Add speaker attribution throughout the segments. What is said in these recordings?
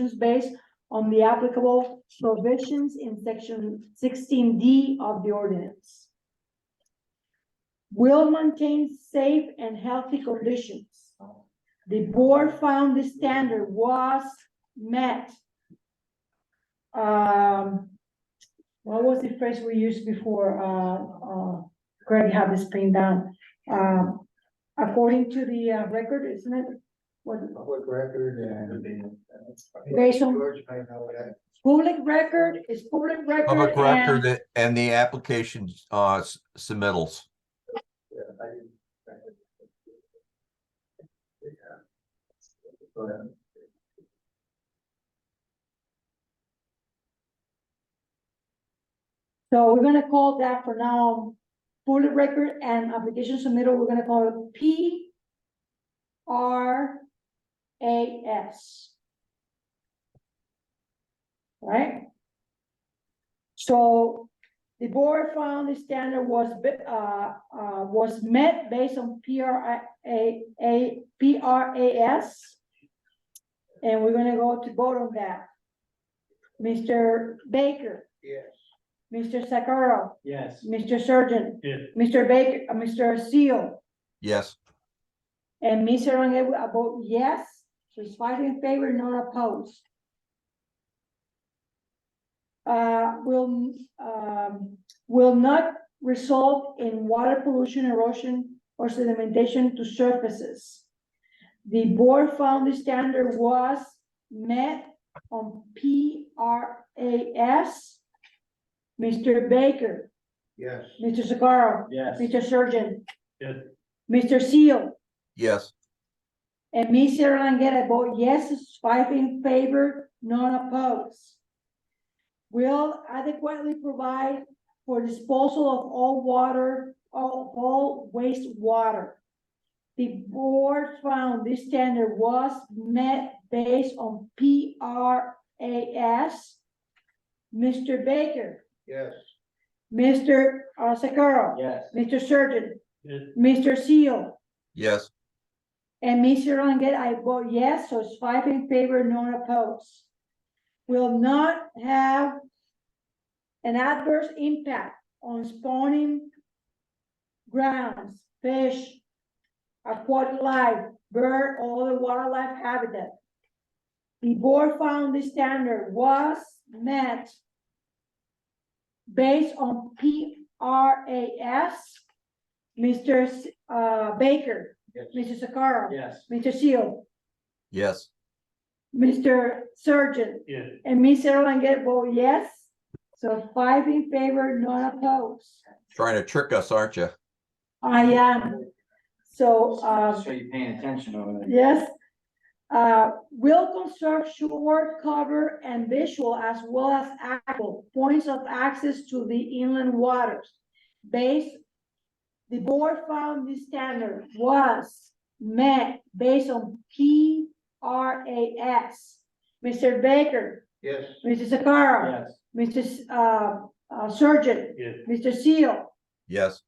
Speaker 1: is based on the applicable provisions in section sixteen D of the ordinance. Will maintain safe and healthy conditions. The board found the standard was met. Um, what was the phrase we used before, uh, uh, Greg had this pinned down? Um, according to the uh, record, isn't it? What,
Speaker 2: Public record and.
Speaker 1: Racial-
Speaker 2: George might know that.
Speaker 1: Public record is public record.
Speaker 3: Public
Speaker 1: and-
Speaker 3: record and the application uh s- submittals.
Speaker 2: Yeah, I didn't. Yeah. Go ahead.
Speaker 1: So we're gonna call that for now, public record and application submitted, we're gonna call it P R A S. Right? So the board found the standard was, be- uh, uh, was met based on P R A, A, P R A S. And we're gonna go to vote on that. Mr. Baker.
Speaker 2: Yes.
Speaker 1: Mr. Sakara,
Speaker 4: Yes.
Speaker 1: Mr. Surgeon,
Speaker 4: Yes.
Speaker 1: Mr. Baker, uh, Mr. Seal,
Speaker 3: Yes,
Speaker 1: and Ms. Rangel, I vote yes, so it's five in favor, none opposed. Uh, will, um, will not result in water pollution, erosion, or sedimentation to surfaces. The board found the standard was met on P R A S. Mr. Baker,
Speaker 2: Yes.
Speaker 1: Mr. Sakara,
Speaker 4: Yes.
Speaker 1: Mr. Surgeon,
Speaker 4: Yes.
Speaker 1: Mr. Seal,
Speaker 3: yes,
Speaker 1: and Ms. Sierra Langetta vote yes, it's five in favor, none opposed. Will adequately provide for disposal of all water, all, all wastewater. The board found this standard was met based on P R A S. Mr. Baker,
Speaker 2: Yes.
Speaker 1: Mr. uh, Sakara,
Speaker 4: Yes.
Speaker 1: Mr. Surgeon,
Speaker 4: Yes.
Speaker 1: Mr. Seal
Speaker 3: yes,
Speaker 1: and Ms. Ranget, I vote yes, so it's five in favor, none opposed. Will not have an adverse impact on spawning grounds, fish, aquatic life, bird, or other wildlife habitat. The board found the standard was met based on P R A S. Mr. S- uh, Baker,
Speaker 2: Yes.
Speaker 1: Mr. Sakara.
Speaker 4: Yes.
Speaker 1: Mr. Seal,
Speaker 3: yes,
Speaker 1: Mr. Surgeon,
Speaker 4: Yes.
Speaker 1: and Ms. Erlangen vote yes. So five in favor, none opposed.
Speaker 3: trying to trick us, aren't you?
Speaker 1: I am, um, so, uh,
Speaker 4: So you're paying attention over there.
Speaker 1: yes. Uh, will construct shore cover and visual as well as actual points of access to the inland waters. Based, the board found this standard was met based on P R A S. Mr. Baker,
Speaker 2: Yes.
Speaker 1: Mr. Sakara,
Speaker 4: Yes.
Speaker 1: Mr. S- uh, uh, Surgeon,
Speaker 4: Yes.
Speaker 1: Mr. Seal,
Speaker 3: Yes,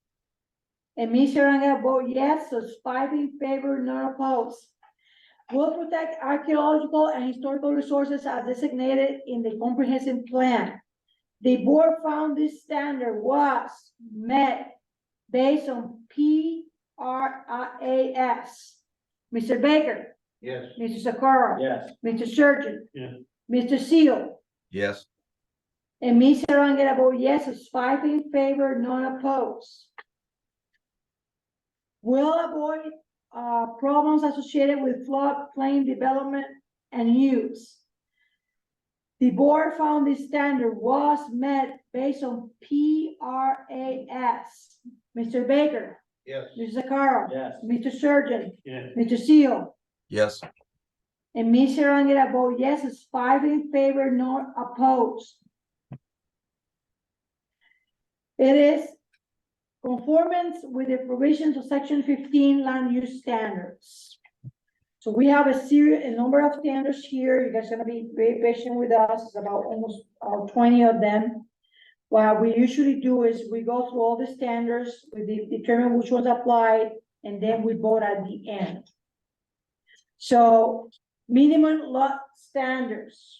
Speaker 1: and Ms. Rangel vote yes, so it's five in favor, none opposed. Will protect archaeological and historical resources as designated in the comprehensive plan. The board found this standard was met based on P R I A S. Mr. Baker,
Speaker 2: Yes.
Speaker 1: Mr. Sakara,
Speaker 4: Yes.
Speaker 1: Mr. Surgeon.
Speaker 4: Yeah.
Speaker 1: Mr. Seal.
Speaker 3: yes,
Speaker 1: And Ms. Rangel, vote oh, yes, it's five in favor, none opposed. Will avoid, uh, problems associated with floodplain development and use. The board found this standard was met based on P R A S. Mr. Baker,
Speaker 2: Yes.
Speaker 1: Mr. Sakara,
Speaker 4: Yes.
Speaker 1: Mr. Surgeon,
Speaker 4: Yes.
Speaker 1: Mr. Seal.
Speaker 3: yes,
Speaker 1: And Ms. Rangel vote yes, it's five in favor, not opposed. It is conformance with the provisions of section fifteen land use standards. So we have a series, a number of standards here. You guys are gonna be very patient with us, It's about almost uh, twenty of them. What we usually do is we go through all the standards, we de- determine which ones apply, and then we vote at the end. So minimum lot standards.